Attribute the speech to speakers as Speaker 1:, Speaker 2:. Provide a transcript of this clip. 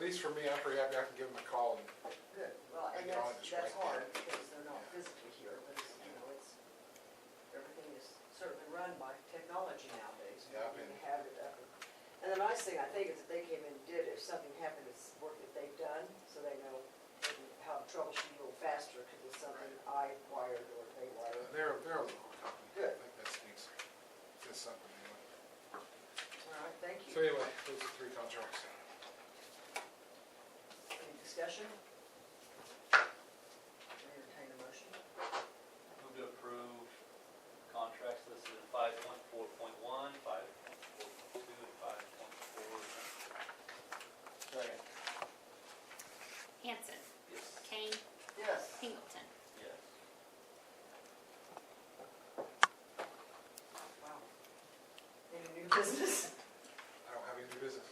Speaker 1: least for me, I'm pretty happy I can give them a call and
Speaker 2: Good, well, and
Speaker 1: They're all
Speaker 2: that's,
Speaker 1: just
Speaker 2: that's
Speaker 1: right there.
Speaker 2: hard, because they're not physically here, but it's, you know, it's, everything is certainly run by technology nowadays.
Speaker 1: Yeah, I've
Speaker 2: You
Speaker 1: been-
Speaker 2: have it up. And the nice thing, I think, is that they came in and did, it. if something happened, it's work that they've done, so they know how to troubleshoot a little faster, because it's something I wired or they wired.
Speaker 1: they're, they're a local company.
Speaker 2: Good.
Speaker 1: I think that speaks, says something anyway.
Speaker 2: All right, thank
Speaker 1: So
Speaker 2: you.
Speaker 1: anyway, those are three contracts.
Speaker 2: Any discussion? Entertain a motion.
Speaker 3: Move to approve contracts listed in five point four point one, five point four point two, and five point four.
Speaker 2: Second.
Speaker 4: Hanson,
Speaker 3: Yes.
Speaker 4: Kane,
Speaker 2: Yes.
Speaker 4: Pingleton.
Speaker 3: Yes.
Speaker 2: Wow. Any new business?
Speaker 1: I don't have any new business.